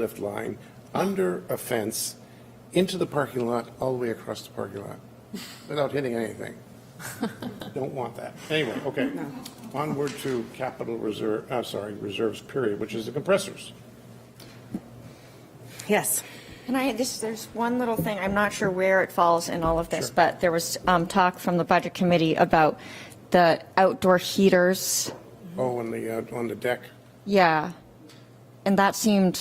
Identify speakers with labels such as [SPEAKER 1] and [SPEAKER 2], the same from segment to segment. [SPEAKER 1] lift line under a fence into the parking lot, all the way across the parking lot, without hitting anything. Don't want that. Anyway, okay. Onward to capital reserve, uh, sorry, reserves period, which is the compressors.
[SPEAKER 2] Yes.
[SPEAKER 3] And I, this, there's one little thing, I'm not sure where it falls in all of this, but there was um, talk from the Budget Committee about the outdoor heaters,
[SPEAKER 1] Oh, on the, uh, on the deck.
[SPEAKER 3] yeah. And that seemed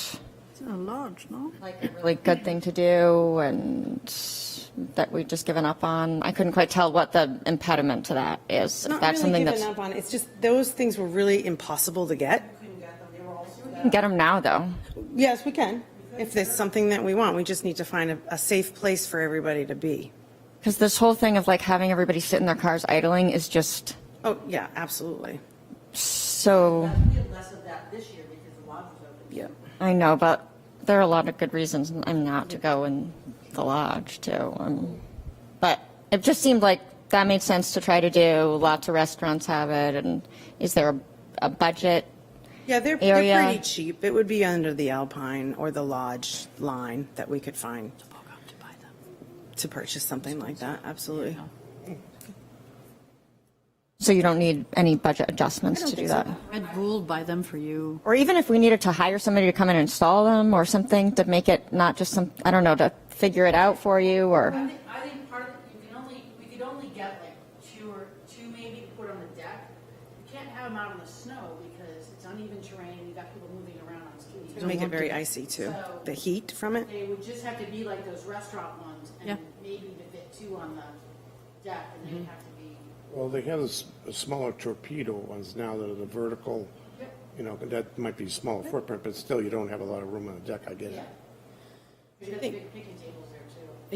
[SPEAKER 2] A large, no?
[SPEAKER 3] like a really good thing to do, and that we've just given up on. I couldn't quite tell what the impediment to that is, if
[SPEAKER 2] Not
[SPEAKER 3] that's
[SPEAKER 2] really
[SPEAKER 3] something
[SPEAKER 2] given
[SPEAKER 3] that's.
[SPEAKER 2] up on, it's just those things were really impossible to get.
[SPEAKER 3] Get them now, though.
[SPEAKER 2] Yes, we can, if there's something that we want, we just need to find a, a safe place for everybody to be.
[SPEAKER 3] Because this whole thing of like having everybody sit in their cars idling is just
[SPEAKER 2] Oh, yeah, absolutely.
[SPEAKER 3] so,
[SPEAKER 4] We had less of that this year because the lodge was open.
[SPEAKER 2] Yeah.
[SPEAKER 3] I know, but there are a lot of good reasons I'm not to go in the lodge too. Um, But it just seemed like that made sense to try to do. Lots of restaurants have it and is there a, a budget?
[SPEAKER 2] Yeah, they're, they're
[SPEAKER 3] Area.
[SPEAKER 2] pretty cheap, it would be under the Alpine or the Lodge line that we could find to purchase something like that, absolutely.
[SPEAKER 3] So you don't need any budget adjustments to do that.
[SPEAKER 5] Red Bull buy them for you.
[SPEAKER 3] Or even if we needed to hire somebody to come in and install them or something to make it not just some, I don't know, to figure it out for you
[SPEAKER 4] I
[SPEAKER 2] Mm-hmm.
[SPEAKER 3] or,
[SPEAKER 4] think, I think part of, you can only, we could only get like two or, two maybe put on the deck. You can't have them out in the snow because it's uneven terrain, you got people moving around on skis.
[SPEAKER 2] Make it very icy too, the heat from it.
[SPEAKER 4] They would just have to be like those restaurant ones
[SPEAKER 5] Yeah.
[SPEAKER 4] and maybe to fit two on the deck and
[SPEAKER 2] Mm-hmm.
[SPEAKER 4] they'd have to be,
[SPEAKER 1] Well, they have s- smaller torpedo ones now that are the vertical, you know, that might be smaller footprint, but still, you don't have a lot of room on the deck, I get it.
[SPEAKER 4] there's got big picking tables there too.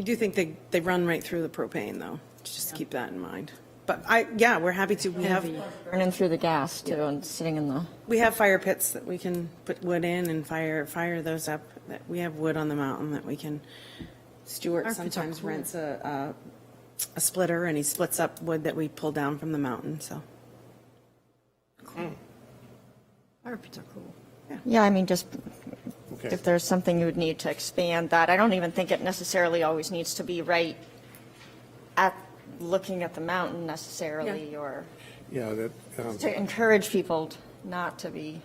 [SPEAKER 2] I do think they, they run right through the propane though, just keep that in mind. But I, yeah, we're happy to, we have,
[SPEAKER 3] burning through the gas too and sitting in the.
[SPEAKER 2] we have fire pits that we can put wood in and fire, fire those up. That We have wood on the mountain that we can, Stuart
[SPEAKER 5] Our pits are
[SPEAKER 2] sometimes
[SPEAKER 5] cool.
[SPEAKER 2] rents a, a, a splitter and he splits up wood that we pull down from the mountain, so.
[SPEAKER 5] Fire pits are cool.
[SPEAKER 3] Yeah, I mean, just
[SPEAKER 1] Okay.
[SPEAKER 3] if there's something you would need to expand that, I don't even think it necessarily always needs to be right at, looking at the mountain necessarily, or
[SPEAKER 1] Yeah, that, um,
[SPEAKER 3] to encourage people not to be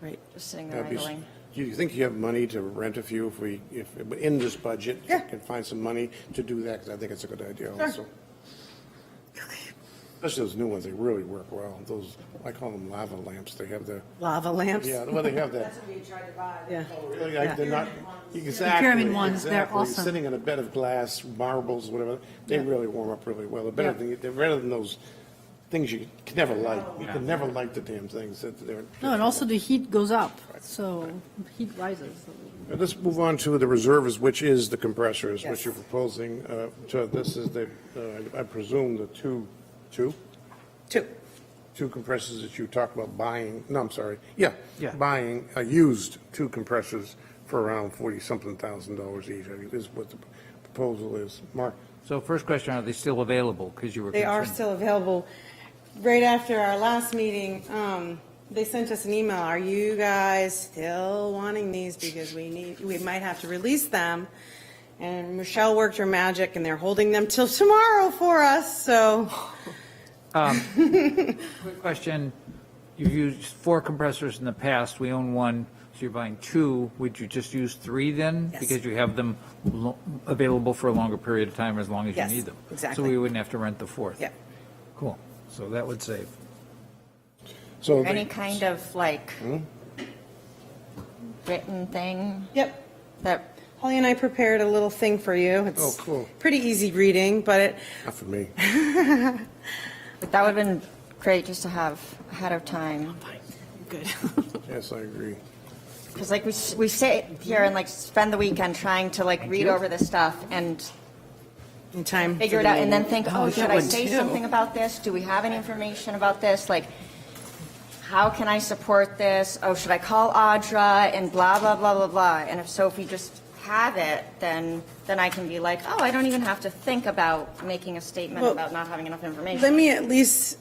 [SPEAKER 2] Right.
[SPEAKER 3] just sitting there
[SPEAKER 1] that'd be s-
[SPEAKER 3] idling.
[SPEAKER 1] Do you think you have money to rent a few if we, if, in this budget?
[SPEAKER 2] Yeah.
[SPEAKER 1] Can find some money to do that, because I think it's a good idea also. Especially those new ones, they really work well. Those, I call them lava lamps. They have the,
[SPEAKER 2] Lava lamps.
[SPEAKER 1] yeah, well, they have that.
[SPEAKER 4] That's what we tried to buy.
[SPEAKER 2] Yeah.
[SPEAKER 1] Really, like, They're not, exactly.
[SPEAKER 5] pyramid ones, they're
[SPEAKER 1] exactly.
[SPEAKER 5] awesome.
[SPEAKER 1] Sitting on a bed of glass, marbles, whatever, they really warm up really well. They're better than, they're better than those things you can never light. You can never light the damn things that they're.
[SPEAKER 5] No, and also the heat goes up, so heat rises. so-
[SPEAKER 1] Let's move on to the reserves, which is the compressors,
[SPEAKER 2] Yes.
[SPEAKER 1] which you're proposing. uh, So this is the, uh, I presume, the two, two?
[SPEAKER 2] Two.
[SPEAKER 1] Two compressors that you talked about buying, no, I'm sorry, yeah.
[SPEAKER 6] Yeah.
[SPEAKER 1] Buying, uh, used two compressors for around 40-something thousand dollars each, I think is what the proposal is. Mark?
[SPEAKER 6] So first question, are they still available? Because you were
[SPEAKER 2] They are
[SPEAKER 6] concerned.
[SPEAKER 2] still available. Right after our last meeting, um, they sent us an email, are you guys still wanting these because we need, we might have to release them? And Michelle worked her magic and they're holding them till tomorrow for us, so
[SPEAKER 6] Quick question, you've used four compressors in the past, we own one, so you're buying two, would you just use three then?
[SPEAKER 2] Yes.
[SPEAKER 6] Because you have them lo- available for a longer period of time as long as you
[SPEAKER 2] Yes,
[SPEAKER 6] need them.
[SPEAKER 2] exactly.
[SPEAKER 6] So we wouldn't have to rent the fourth.
[SPEAKER 2] Yeah.
[SPEAKER 6] Cool, so that would save.
[SPEAKER 1] So
[SPEAKER 3] Any
[SPEAKER 1] they-
[SPEAKER 3] kind of like
[SPEAKER 1] Hmm?
[SPEAKER 3] written thing
[SPEAKER 2] Yep.
[SPEAKER 3] that,
[SPEAKER 2] Holly and I prepared a little thing for you. It's
[SPEAKER 1] Oh, cool.
[SPEAKER 2] Pretty easy reading, but it,
[SPEAKER 1] Not for me.
[SPEAKER 3] that would have been great just to have ahead of
[SPEAKER 1] Oh
[SPEAKER 3] time.
[SPEAKER 2] good.
[SPEAKER 1] Yes, I agree.
[SPEAKER 3] Because like we, s- we sit here and like spend the weekend trying to like read over this stuff and
[SPEAKER 2] In time. for
[SPEAKER 3] figure it
[SPEAKER 2] the
[SPEAKER 3] out and then
[SPEAKER 2] meeting.
[SPEAKER 3] think, oh, should I say something about this? Do we have any information about this? Like, how can I support this? Oh, should I call Audra and blah, blah, blah, blah, blah? And if so, if we just have it, then, then I can be like, oh, I don't even have to think about making a statement
[SPEAKER 2] Well,
[SPEAKER 3] about not having enough
[SPEAKER 2] Let
[SPEAKER 3] information.
[SPEAKER 2] me at least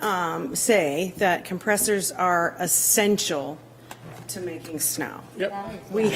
[SPEAKER 2] um, say that compressors are essential
[SPEAKER 7] to making snow.
[SPEAKER 2] Yep.
[SPEAKER 7] We